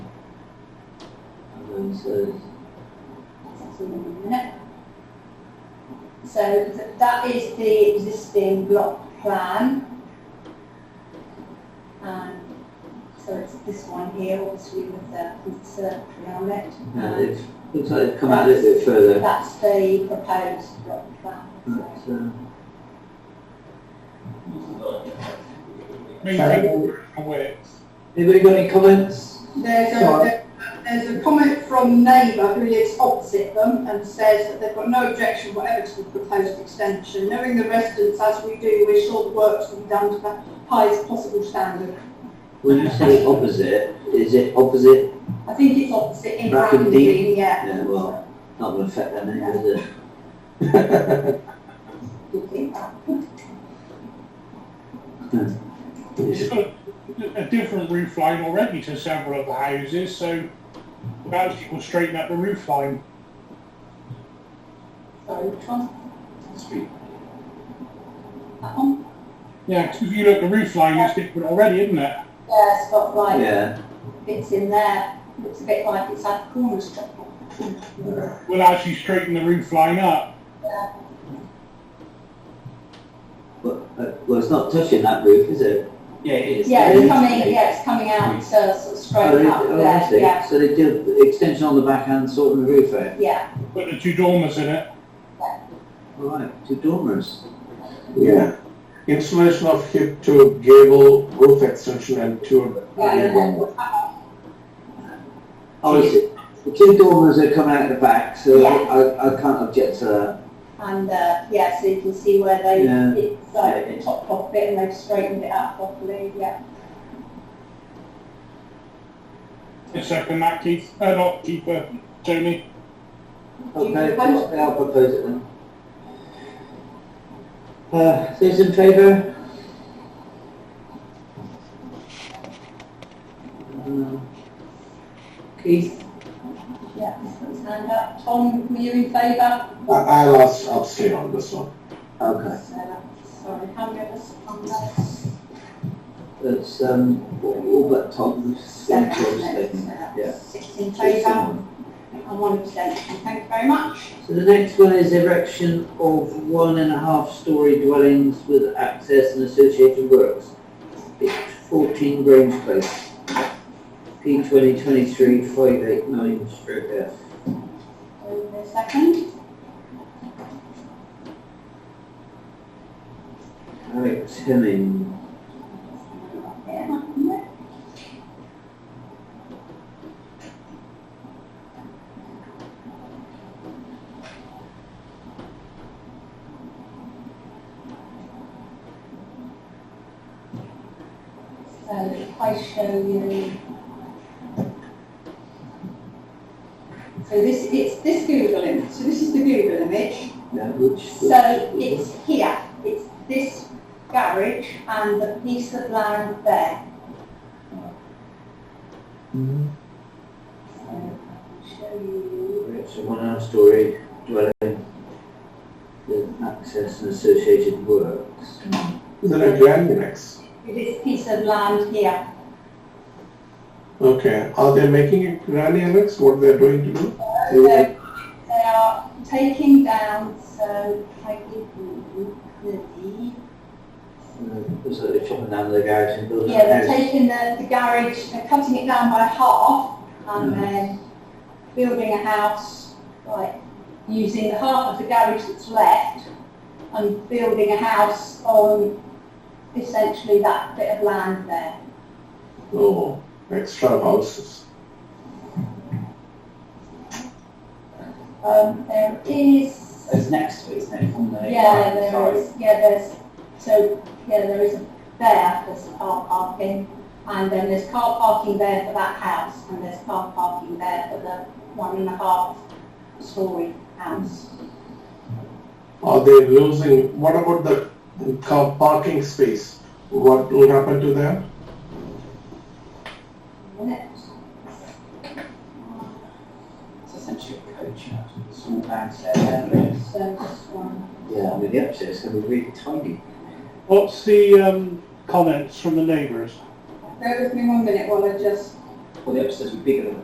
says. So th- that is the existing block plan. And so it's this one here, obviously with the conservatory on it. No, And it's, looks like they've come out a little bit further. that's the proposed block plan. That's, uh, Me, I'm aware. anybody got any comments? There's Sorry. a, there's a comment from neighbour who lives opposite them and says that they've got no objection whatever to the proposed extension. Knowing the residents as we do, we're sure the work will be done to the highest possible standard. When you say opposite, is it opposite? I think it's opposite in Bracken Bracken Dean. Dean, yeah. Yeah, well, Not going to affect them, is it? It's got a different roof line already to several of the houses, so perhaps it will straighten up the roof line. Sorry, which one? That one? Yeah, 'cause if you look at the roof line, it's different already, isn't it? Yeah, it's got like Yeah, bits in there, looks a bit like it's had corners chopped off. Will actually straighten the roof line up. but, uh, well, it's not touching that roof, is it? Yeah, it is. Yeah, Yeah, it's it's coming, big. yeah, it's coming out, uh, sort of Oh, straight is it? up Oh, I there, see. yeah, So they did the extension on the back and sorting the roof out. yeah. Put the two dormers in it. All right, two dormers. Yeah, installation of hip to gable roof extension and to gable. Obviously, Oh, the two dormers are coming out the back, so I, I can't object to that. And, uh, yeah, so you can see where they, Yeah. it's like the top off bit and they've straightened it out properly, yeah. A second, that Keith, uh, not keeper, Tony. Okay, I'll propose it then. Uh, those in favour? Uh, Keith? Yeah, so hand up, Tom, were you in favour? I, I'll abs- abstain on this one. Okay. So, Sorry, how many of us on that? It's, um, all but Tom's. Yeah, Yeah. Six in favour and one abstention, thank you very much. So the next one is erection of one and a half storey dwellings with access and associated works. It's fourteen Grange Place. P twenty twenty-three five eight nine stroke F. Over a second, Alex Hemming. yeah, yeah. So if I show you. So this, it's this Google image, so this is the Google image. Now, which? So it's here, it's this garage and the piece of land there. So I'll Show you, Erection of one and a half storey dwelling with access and associated works. Is it a grand annex? this piece of land here, Okay, are they making it grand annex, what they're going to do? so they are taking down, so I give you the, Uh, It's like they're chopping down the garage and building a yeah, they're house. taking the, the garage, they're cutting it down by half and then building a house, like, using the half of the garage that's left and building a house on essentially that bit of land there. Oh, extra houses. Um, there is, It's next to it, isn't it? On the yeah, there sorry. is, yeah, there's, so, yeah, there is, a- there, there's car parking. And then there's car parking there for that house and there's car parking there for the one and a half story house. Are they losing, what about the car parking space? What will happen to that? It's essentially a coach, a small downstairs area. So just one. Yeah, I mean, the upstairs is going to be really tidy. What's the, um, comments from the neighbours? Bear with me one minute while I just Well, the upstairs would be bigger than